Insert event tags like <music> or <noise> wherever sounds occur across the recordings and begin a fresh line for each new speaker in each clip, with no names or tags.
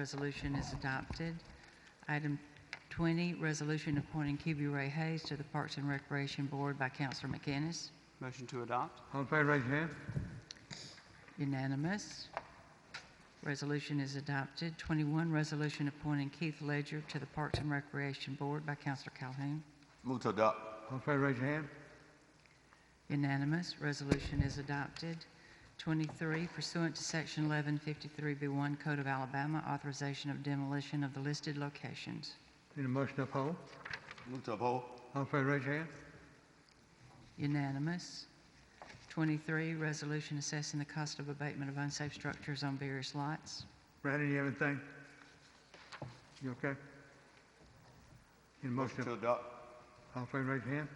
Resolution is adopted. Item 20, resolution appointing QB Ray Hayes to the Parks and Recreation Board by Counselor McInnes.
Motion to adopt.
All in favor, raise your hand.
Unanimous. Resolution is adopted. 21, resolution appointing Keith Ledger to the Parks and Recreation Board by Counselor Calhoun.
Move to adopt.
All in favor, raise your hand.
Unanimous. Resolution is adopted. 23, pursuant to Section 1153B1 Code of Alabama, authorization of demolition of the listed locations.
Need a motion to uphold?
Move to uphold.
All in favor, raise your hand.
Unanimous. 23, resolution assessing the cost of abatement of unsafe structures on various lots.
Brandon, you have anything? You okay? Need a motion
Motion to
to,
adopt.
all in favor, raise your hand.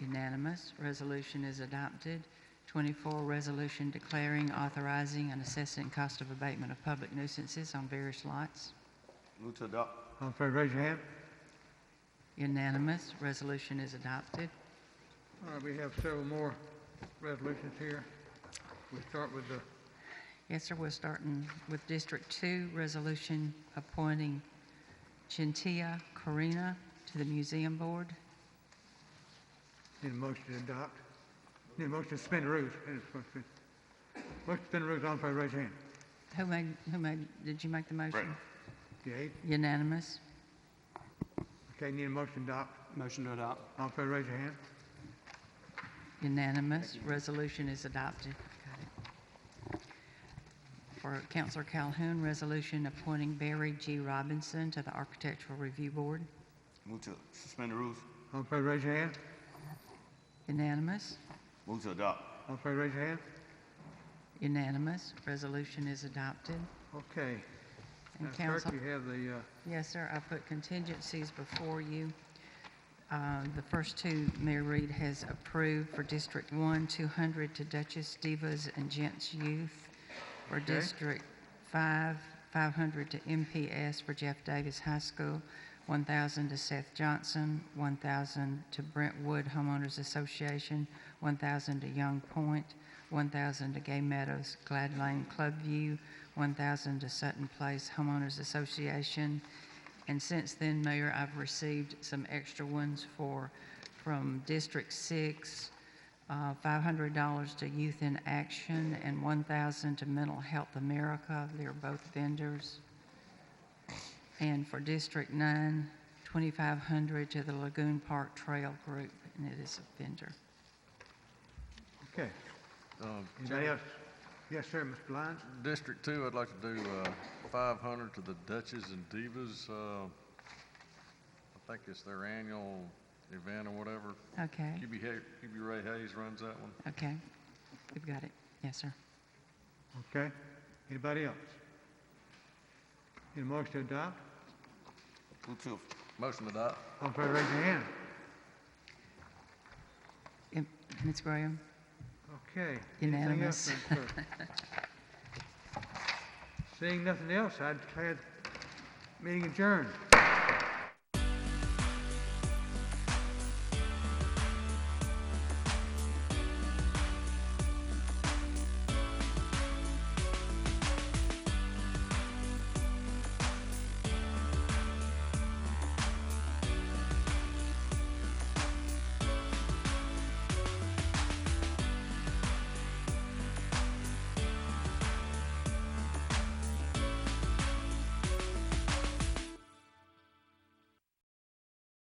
Unanimous. Resolution is adopted. 24, resolution declaring, authorizing, and assessing cost of abatement of public nuisances on various lots.
Move to adopt.
All in favor, raise your hand.
Unanimous. Resolution is adopted.
All right, we have several more resolutions here. We start with the,
Yes, sir, we're starting with District 2, resolution appointing Chintia Corina to the Museum Board.
need a motion to adopt. Need a motion to suspend the rules. Need a Motion to motion to suspend the rules, all in favor, raise your hand.
Who made, who made, did you make the motion?
Yay.
Unanimous.
Okay, need a motion to adopt.
Motion to adopt.
All in favor, raise your hand.
Unanimous. Resolution is adopted. Got it. For Counselor Calhoun, resolution appointing Barry G. Robinson to the Architectural Review Board.
Move to suspend the rules.
All in favor, raise your hand.
Unanimous.
Move to adopt.
All in favor, raise your hand.
Unanimous. Resolution is adopted.
Okay.
And
Now, clerk,
Counsel-
you have the, uh,
Yes, sir, I put contingencies before you. Uh, The first two, Mayor Reed has approved for District 1, 200 to Duchess Divas and Gents Youth. For District 5, 500 to MPS for Jeff Davis High School, 1,000 to Seth Johnson, 1,000 to Brentwood Homeowners Association, 1,000 to Young Point, 1,000 to Gay Meadows Glad Lane Club View, 1,000 to Sutton Place Homeowners Association. And since then, Mayor, I've received some extra ones for, from District 6, uh, $500 to Youth in Action, and 1,000 to Mental Health America. They're both vendors. And for District 9, 2,500 to the Lagoon Park Trail Group, and it is a vendor.
okay. Um, Anybody else? Yes, sir, Mr. Lyons?
District two, I'd like to do, uh, five hundred to the Duchess and Divas, uh, I think it's their annual event or whatever.
Okay,
QB Hay, QB Ray Hayes runs that one.
okay. You've got it. Yes, sir.
Okay. Anybody else? Need a motion to adopt?
Move to
Motion to adopt.
All in favor, raise your hand.
Yep, Ms. Graham?
Okay. Anything else,
Unanimous.
Madam Clerk?
<laughs>
Seeing nothing else, I declare the meeting adjourned.